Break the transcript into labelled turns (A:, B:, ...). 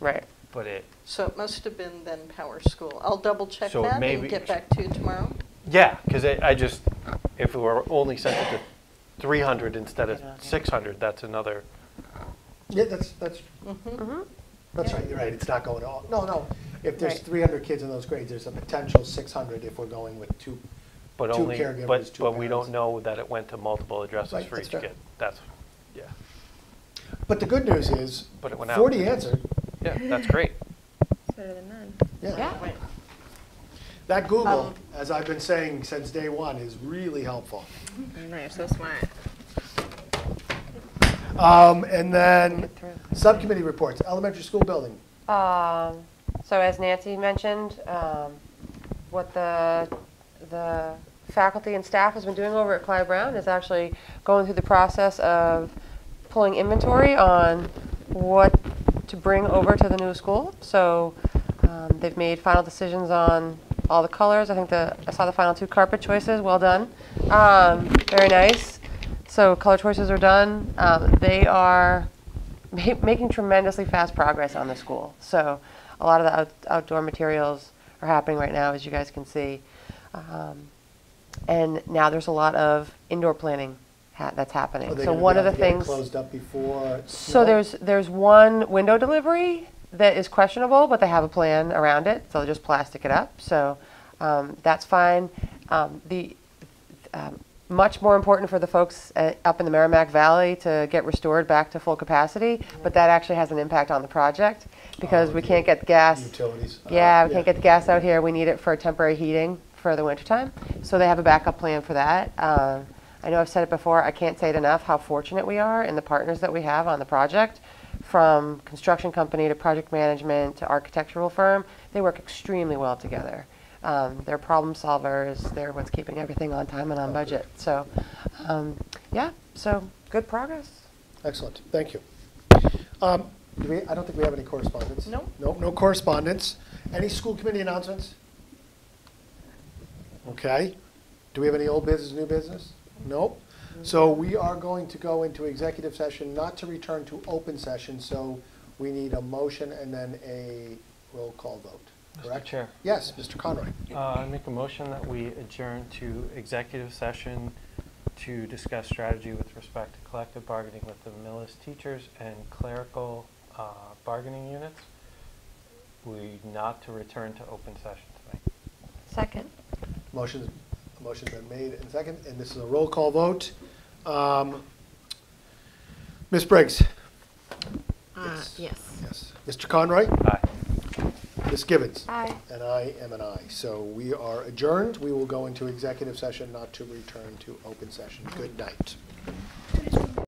A: Right.
B: but it,
C: So it must have been then Power School. I'll double check
B: So
C: that
B: maybe-
C: and get back to you tomorrow.
B: yeah, because I just, if we were only sent it to 300 instead of
A: Get on, yeah.
B: 600, that's another,
D: Yeah, that's, that's,
E: Mm-hmm.
D: that's right, you're right, it's not going all, no, no. If there's
A: Right.
D: 300 kids in those grades, there's a potential 600 if we're going with two.
B: but
D: Two
B: only, but,
D: caregivers, two
B: but we
D: parents.
B: don't know that it went to multiple addresses
D: Right,
B: for
D: that's
B: each
D: fair.
B: kid. That's, yeah,
D: But the good news is,
B: But it went out.
D: 40 answered,
B: yeah, that's great.
F: It's better than none.
D: yeah.
A: Yeah.
D: That Google,
A: Um,
D: as I've been saying since day one, is really helpful.
F: I
E: Mm-hmm.
F: know, you're so smart.
D: Um, And then, subcommittee reports, elementary school building.
E: Um, so as Nancy mentioned, um, what the, the faculty and staff has been doing over at Clyde Brown is actually going through the process of pulling inventory on what to bring over to the new school. So, um, they've made final decisions on all the colors. I think the, I saw the final two carpet choices, well done. Um, very nice. So color choices are done. Um, they are ma- making tremendously fast progress on the school. So a lot of the out- outdoor materials are happening right now, as you guys can see. Um, and now there's a lot of indoor planning ha- that's happening.
D: Are they
E: so
D: gonna be
E: one of the
D: able to get it
E: things
D: Closed up before.
E: so
D: snow?
E: there's there's one window delivery that is questionable, but they have a plan around it, so they'll just plastic it up. So um, that's fine. Um, the um, much more important for the folks uh, up in the Merrimack Valley to get restored back to full capacity, but that actually has an impact on the project because
D: Oh,
E: we can't get gas.
D: Utilities. uh,
E: Yeah, we can't get the gas out here. We need it for temporary heating for the wintertime. So they have a backup plan for that. Um, I know I've said it before, I can't say it enough, how fortunate we are and the partners that we have on the project, from construction company to project management to architectural firm. They work extremely well together. Um, They're problem solvers. They're what's keeping everything on time and on budget. So, um, yeah, so good progress.
D: Excellent, thank you. Um, do we, I don't think we have any correspondence.
C: No.
D: Nope, no correspondence. Any school committee announcements? Okay. Do we have any old business, new business? Nope. So we are going to go into executive session, not to return to open session, so we need a motion and then a roll call vote, correct?
B: Chair.
D: Yes, Mr. Conroy.
B: Uh, I make a motion that we adjourn to executive session to discuss strategy with respect to collective bargaining with the Millis teachers and clerical uh, bargaining units. We not to return to open session tonight.
E: Second.
D: Motion's, a motion's been made and second, and this is a roll call vote. Um, Ms. Briggs?
F: Uh,
D: Yes.
F: yes.
D: Yes. Mr. Conroy?
B: Aye.
D: Ms. Gibbons?
E: Aye.
D: And I am an aye. So we are adjourned. We will go into executive session, not to return to open session. Good night.